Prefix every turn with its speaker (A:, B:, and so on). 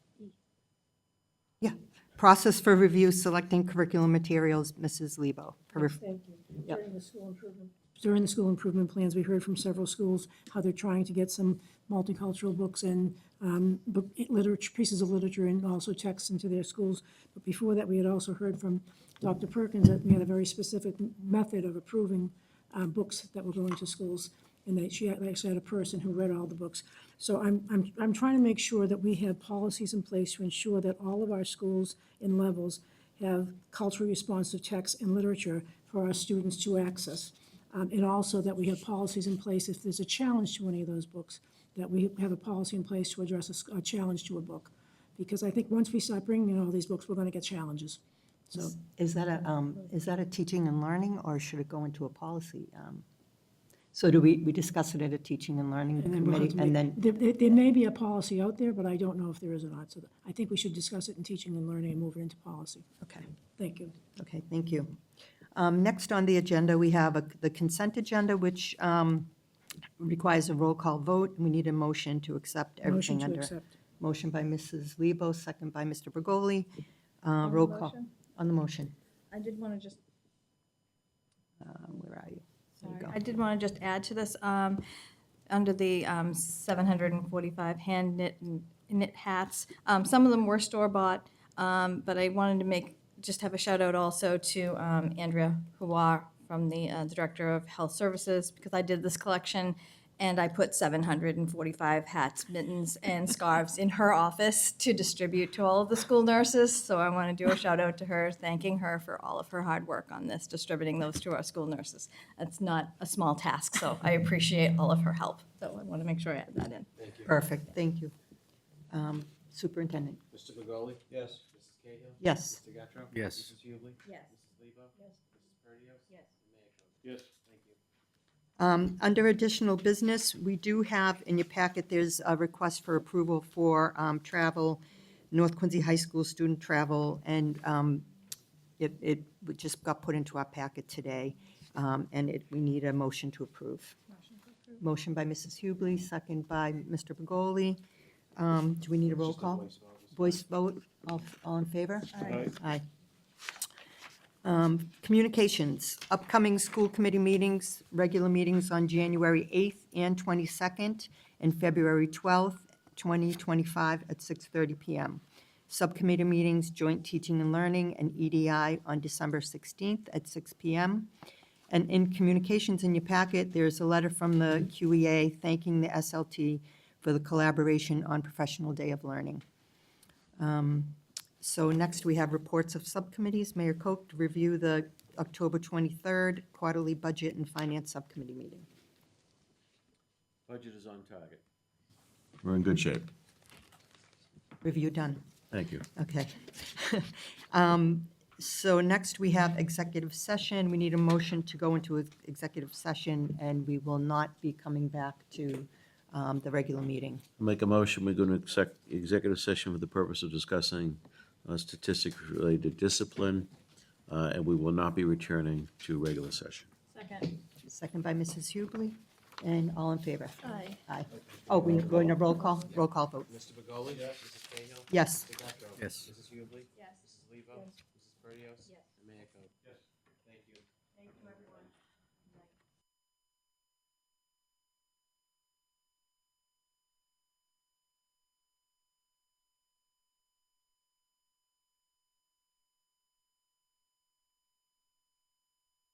A: Process for review, selecting curriculum materials, Mrs. Lebo. Per-
B: Thank you. During the school improvement. During the school improvement plans, we heard from several schools how they're trying to get some multicultural books and um, book, literature, pieces of literature and also texts into their schools. But before that, we had also heard from Dr. Perkins that we had a very specific m- method of approving uh, books that were going to schools. And that she act- actually had a person who read all the books. So I'm, I'm, I'm trying to make sure that we have policies in place to ensure that all of our schools and levels have culturally responsive texts and literature for our students to access. Um, And also that we have policies in place if there's a challenge to any of those books, that we have a policy in place to address a s- a, challenge to a book. Because I think once we start bringing in all these books, we're going to get challenges. So
A: Is that a, um, is that a teaching and learning, or should it go into a policy? um? So do we, we discuss it at a teaching and learning
B: and then we'll have
A: committee,
B: to
A: and
B: make-
A: then,
B: There, there- there may be a policy out there, but I don't know if there is or not. So I think we should discuss it in teaching and learning and move it into policy.
A: okay,
B: Thank you.
A: okay, thank you. Um, Next on the agenda, we have a- the consent agenda, which um, requires a roll call vote. We need a motion to accept
B: Motion
A: everything
B: to
A: under.
B: accept.
A: Motion by Mrs. Lebo, second by Mr. Bergoli. Uh, Roll call.
C: motion?
A: On the motion.
C: I did want to just,
A: Um, Where are you? There you go.
C: sorry, I did want to just add to this, um, under the um, 745 hand knit, knit hats. Um, Some of them were store-bought, um, but I wanted to make, just have a shout out also to um, Andrea Huar from the uh, Director of Health Services, because I did this collection, and I put 745 hats, mittens, and scarves in her office to distribute to all of the school nurses. So I want to do a shout out to her, thanking her for all of her hard work on this, distributing those to our school nurses. That's not a small task, so I appreciate all of her help. So I want to make sure I add that in.
A: Perfect, thank you. Um, Superintendent,
D: Mr. Begoli? Yes. Mrs. Cahill?
A: yes.
D: Mr. Gattro?
E: Yes.
D: Mrs. Hubley?
C: Yes.
D: Mrs. Lebo? Yes. Mrs. Perdiós? Yes. Mayor Yes. Thank you.
A: Um, Under additional business, we do have in your packet, there's a request for approval for um, travel, North Quincy High School student travel, and um, it, it just got put into our packet today, um, and it, we need a motion to approve. Motion by Mrs. Hubley, second by Mr. Begoli. Um, Do we need a roll
D: Just a
A: call?
D: voice vote, Mr.
A: Voice vote, all, all in favor? Aye. Um, Communications, upcoming school committee meetings, regular meetings on January 8th and 22nd, and February 12th, 2025, at 6:30 PM. Subcommittee meetings, joint teaching and learning, and EDI on December 16th at 6 PM. And in communications in your packet, there's a letter from the QEA thanking the SLT for the collaboration on Professional Day of Learning. So next, we have reports of subcommittees. Mayor Koch to review the October 23rd quarterly budget and finance subcommittee meeting.
D: Budget is on target.
E: We're in good shape.
A: Review done.
E: Thank you.
A: Okay. Um, So next, we have executive session. We need a motion to go into executive session, and we will not be coming back to um, the regular meeting.
E: Make a motion, we're going to exec, executive session for the purpose of discussing uh, statistics related to discipline, uh, and we will not be returning to regular session.
C: Second.
A: Second by Mrs. Hubley, and all in favor?
C: Aye.
A: Aye. Oh, we're going to roll call? Roll call vote.
D: Mr. Begoli? Yes. Mrs. Cahill?
A: Yes.
D: Mr. Gattro?
E: Yes.
D: Mrs. Hubley? Yes. Mrs. Lebo? Yes. Mrs. Perdiós? Yes. And Mayor Yes. Thank you.